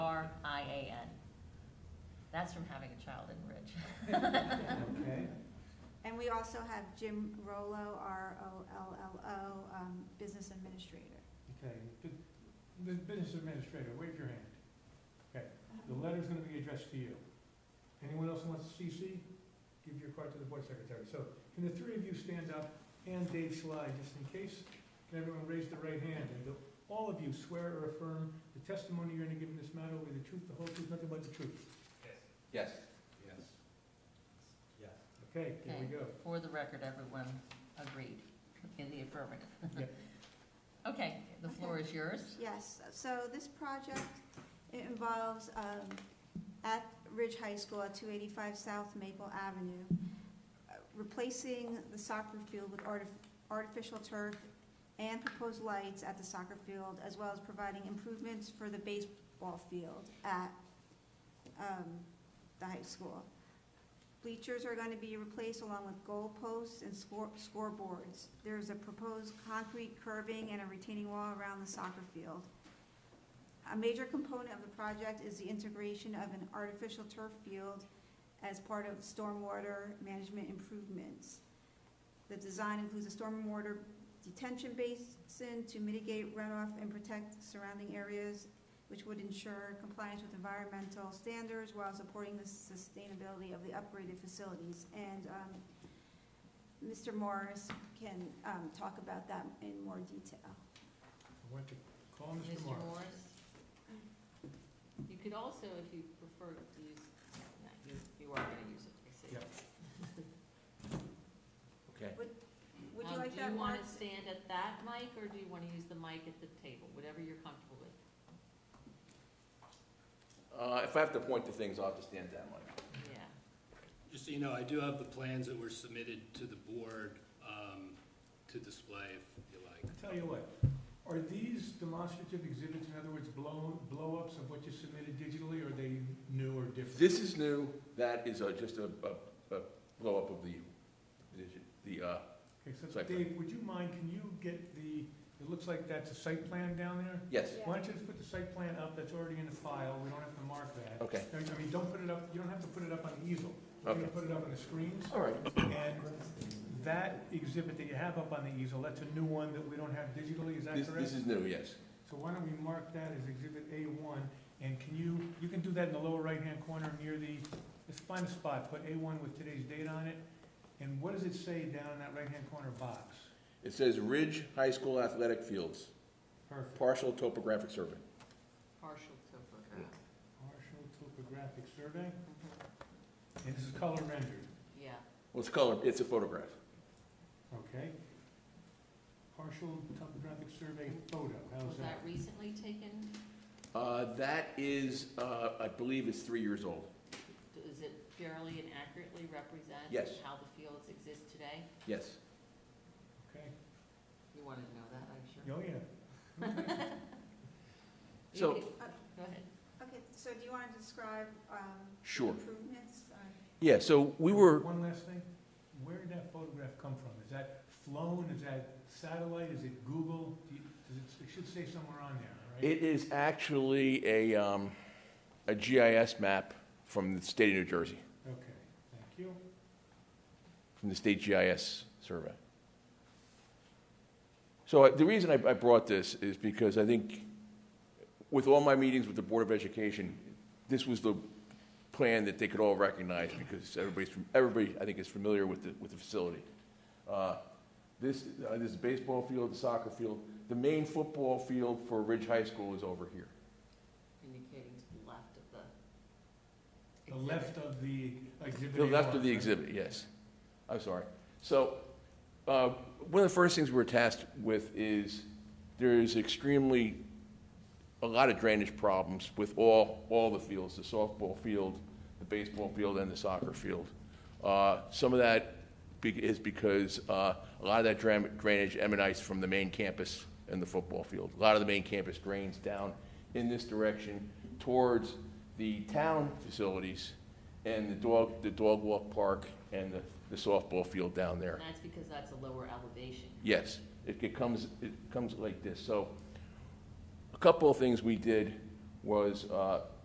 That's from having a child in Ridge. Okay, And we also have Jim Rollo, R-O-L-L-O, um, Business Administrator. okay. Bu- bu- Business administrator, wave your hand. Okay, the letter's gonna be addressed to you. Anyone else who wants to CC, give your card to the board secretary. So can the three of you stand up and Dave Schley, just in case? Can everyone raise their right hand? And do all of you swear or affirm the testimony you're gonna give in this matter will be the truth, the whole truth, nothing but the truth? Yes. Yes. Okay, here we go. For the record, everyone agreed in the affirmative. Yeah. Okay, the floor is yours. Yes, so this project it involves, um, at Ridge High School at two eighty-five South Maple Avenue, uh, replacing the soccer field with artif- artificial turf and proposed lights at the soccer field, as well as providing improvements for the baseball field at, um, the high school. Bleachers are gonna be replaced along with goalposts and score, scoreboards. There's a proposed concrete curbing and a retaining wall around the soccer field. A major component of the project is the integration of an artificial turf field as part of stormwater management improvements. The design includes a stormwater detention basin to mitigate runoff and protect surrounding areas, which would ensure compliance with environmental standards while supporting the sustainability of the upgraded facilities. And um, Mr. Morris can um, talk about that in more detail. I want to call Mr. Mr. Morris. Morris? You could also, if you prefer to use, no, you, you are gonna use it, I see. Um, Yep. Okay. Would you Um, like that, Do you Mark? wanna stand at that mic, or do you wanna use the mic at the table, whatever you're comfortable with? Uh, if I have to point to things, I'll have to stand that way. Yeah. Just so you know, I do have the plans that were submitted to the board um, to display if you like. I tell you what, are these demonstrative exhibits, in other words, blow, blow-ups of what you submitted digitally, or are they new or different? This is new, that is uh, just a, a, a blow-up of the, the, uh, Okay, so Site plan. Dave, would you mind, can you get the, it looks like that's a site plan down there? yes, Yeah. Why don't you just put the site plan up, that's already in the file, we don't have to mark that. okay, I mean- I mean, don't put it up, you don't have to put it up on the easel. We're gonna Okay. put it up on the screens, all right. and that exhibit that you have up on the easel, that's a new one that we don't have digitally, is that This, correct? this is new, yes. So why don't we mark that as exhibit A one, and can you, you can do that in the lower right-hand corner near the, just find a spot, put A one with today's date on it, and what does it say down in that right-hand corner box? It says Ridge High School Athletic Fields, Perfect. partial topographic survey. Partial topograph. Partial topographic survey, Mm-hmm. and this is color rendered, Yeah, Well, it's color, it's a photograph. okay? Partial topographic survey photo, how's was that that? recently taken? Uh, that is, uh, I believe is three years old. Does it fairly and accurately represent? Yes. How the fields exist today? Yes. Okay, You wanted to know that, I'm sure. oh yeah. You So- could- Go ahead. Okay, so do you want to describe um, the Sure. improvements? uh, Or- Yeah, so we were, One last thing, where did that photograph come from? Is that flown, is that satellite, is it Google? Do you- Does it, it should say somewhere on there, all right? it is actually a, um, a GIS map from the state of New Jersey, Okay, thank you. from the state GIS survey. So I- the reason I, I brought this is because I think with all my meetings with the Board of Education, this was the plan that they could all recognize because everybody's, fam- everybody, I think, is familiar with the, with the facility. Uh, This, uh, this baseball field, the soccer field, the main football field for Ridge High School is over here. Indicating to the left of the. The left exhibit. of the exhibit. The left of the A1, exhibit, yes. I'm sorry. So, uh, one of the first things we're tasked with is, there is extremely, a lot of drainage problems with all, all the fields, the softball field, the baseball field, and the soccer field. Uh, Some of that be- is because uh, a lot of that dram- drainage emanates from the main campus and the football field. A lot of the main campus drains down in this direction towards the town facilities and the dog, the dog walk park and the- the softball field down there. And that's because that's a lower elevation. Yes, it it comes, it comes like this. So a couple of things we did was uh,